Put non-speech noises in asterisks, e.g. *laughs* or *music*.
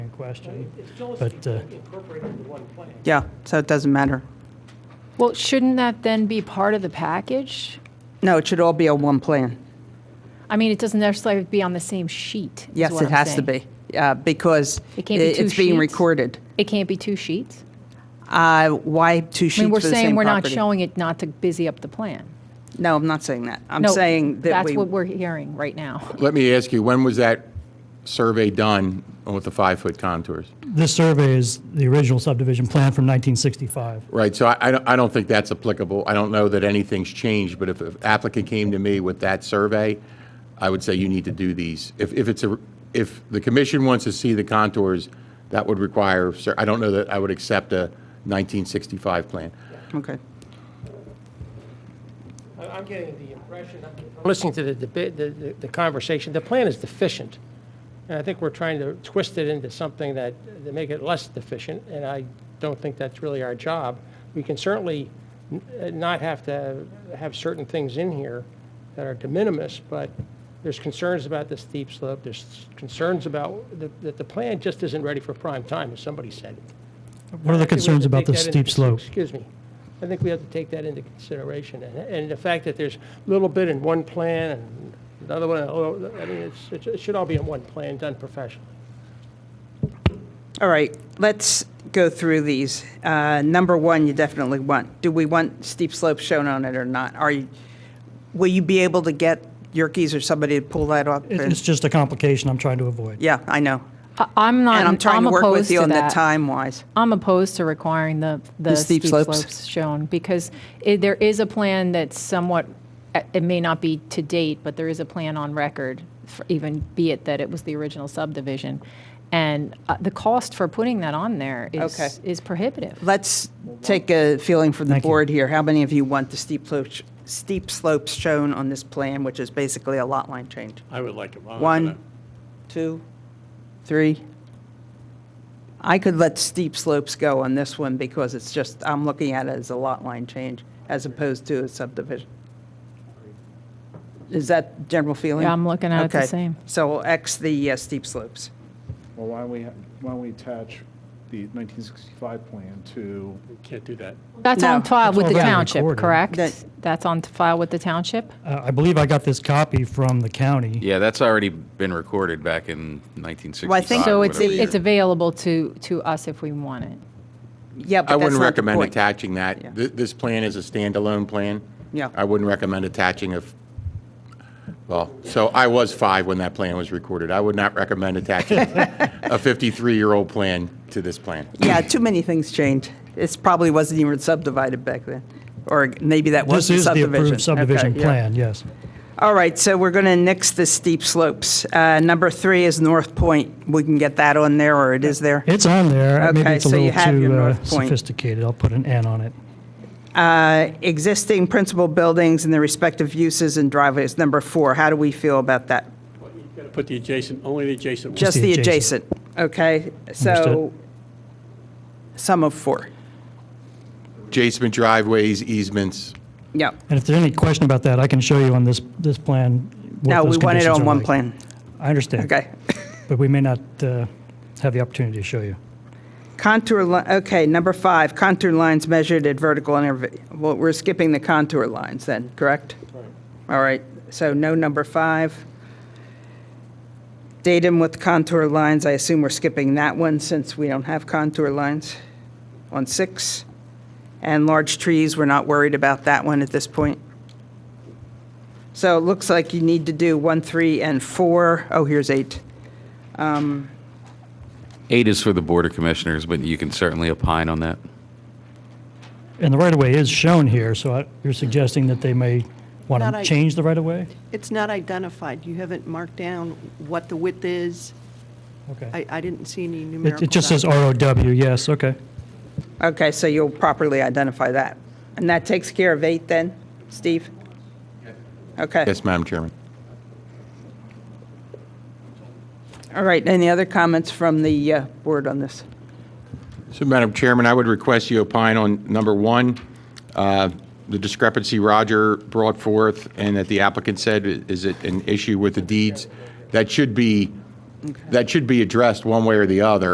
question. It's still But, uh, incorporated into one plan. Yeah, so it doesn't matter. Well, shouldn't that then be part of the package? No, it should all be on one plan. I mean, it doesn't necessarily be on the same sheet. is Yes, what it I'm has to saying. be, uh, because It i- can't be two it's being sheets? recorded. It can't be two sheets? Uh, Why two I sheets mean, for we're the same saying we're not property? showing it not to busy up the plan. No, I'm not saying that. I'm No, saying that That's we, what we're hearing right now. Let me ask you, when was that survey done with the five-foot contours? This survey is the original subdivision plan from 1965. Right, so I- I, don't- I don't think that's applicable. I don't know that anything's changed, but if an applicant came to me with that survey, I would say you need to do these. If, if it's a, if the commission wants to see the contours, that would require, sur- I don't know that I would accept a 1965 plan. okay. I- I'm getting the impression, I'm listening to the debate, the- the the conversation, the plan is deficient. And I think we're trying to twist it into something that, to make it less deficient, and I don't think that's really our job. We can certainly n- uh, not have to have certain things in here that are de minimis, but there's concerns about the steep slope, there's concerns about, the- that the plan just isn't ready for prime time, as somebody said. What are the I think we have concerns to about take the that into- steep slope? Excuse me. I think we have to take that into consideration. And- And the fact that there's a little bit in one plan and another one, oh, I mean, it's- it's- it should all be in one plan, done professionally. All right, let's go through these. Uh, Number one, you definitely want, do we want steep slopes shown on it or not? Are you, will you be able to get Yerkes or somebody to pull that up? It- and- It's just a complication I'm trying to avoid. Yeah, I know. I- I'm not, And I'm trying I'm to work opposed with you to on the that. time-wise. I'm opposed to requiring the, the steep steep slopes. slopes shown, because it- there is a plan that's somewhat, uh, it may not be to date, but there is a plan on record, for even be it that it was the original subdivision. And uh, the cost for putting that on there Okay. is, is prohibitive. Let's take a feeling from the Thank you. board here. How many of you want the steep slopes, steep slopes shown on this plan, which is basically a lot line change? I would like it. I'm not One, gonna- two, three. I could let steep slopes go on this one because it's just, I'm looking at it as a lot line change as opposed to a subdivision. Is that general feeling? Yeah, I'm looking at it the Okay. same. So we'll X the uh, steep slopes. Well, why don't we, ha- why don't we attach the 1965 plan to, Can't do that. That's No. on file It's with the already township, recorded. correct? That- That's on file with the township? Uh, I believe I got this copy from the county. Yeah, that's already been recorded back in 1965. Well, I think- So it's, whatever year. it's available to, to us if we want it. Yeah, I but that's wouldn't not the recommend point. attaching that. Yeah. Th- This plan is a standalone plan. Yeah. I wouldn't recommend attaching a, f- well, so I was five when that plan was recorded. I would not *laughs* recommend attaching a 53-year-old plan to this plan. Yeah, too many things change. It probably wasn't even subdivided back then, or maybe that This was the is the subdivision. approved subdivision Okay, yeah. plan, yes. All right, so we're going to nix the steep slopes. Uh, Number three is North Point. We can get that on there, or it is there. It's on there. Maybe Okay, it's a so you little have your too uh, North Point. sophisticated. I'll put an N on it. Uh, Existing principal buildings and their respective uses and driveways, number four. How do we feel about that? Gotta Put the adjacent, only the adjacent. ones. Just the the adjacent, okay? So, Understood. sum of four. Jasmine driveways, easements, Yeah. And if there's any question about that, I can show you on this, this plan No, what we those want it conditions on are one like. plan. I understand. Okay. But we may not uh, have the opportunity to show you. Contour, li- okay, number five, contour lines measured at vertical interval. Well, we're skipping the contour lines then, correct? All right, so no number five. Datum with contour lines, I assume we're skipping that one since we don't have contour lines on six. And large trees, we're not worried about that one at this point. So it looks like you need to do one, three, and four. Oh, here's eight. Eight is for the Board of Commissioners, but you can certainly opine on that. And the right-of-way is shown here, so I- you're suggesting that they may want Not to I- change the right-of-way? It's not identified. You haven't marked down what the width is. Okay. I, I didn't see any It numerical. it just says value. ROW, yes, okay. Okay, so you'll properly identify that. And that takes care of eight then, Steve? Okay, yes, Madam Chairman. all right, any other comments from the uh, board on this? So, Madam Chairman, I would request you opine on number one, uh, the discrepancy Roger brought forth and that the applicant said, i- is it an issue with the deeds? That should be, that should be addressed one way or the other.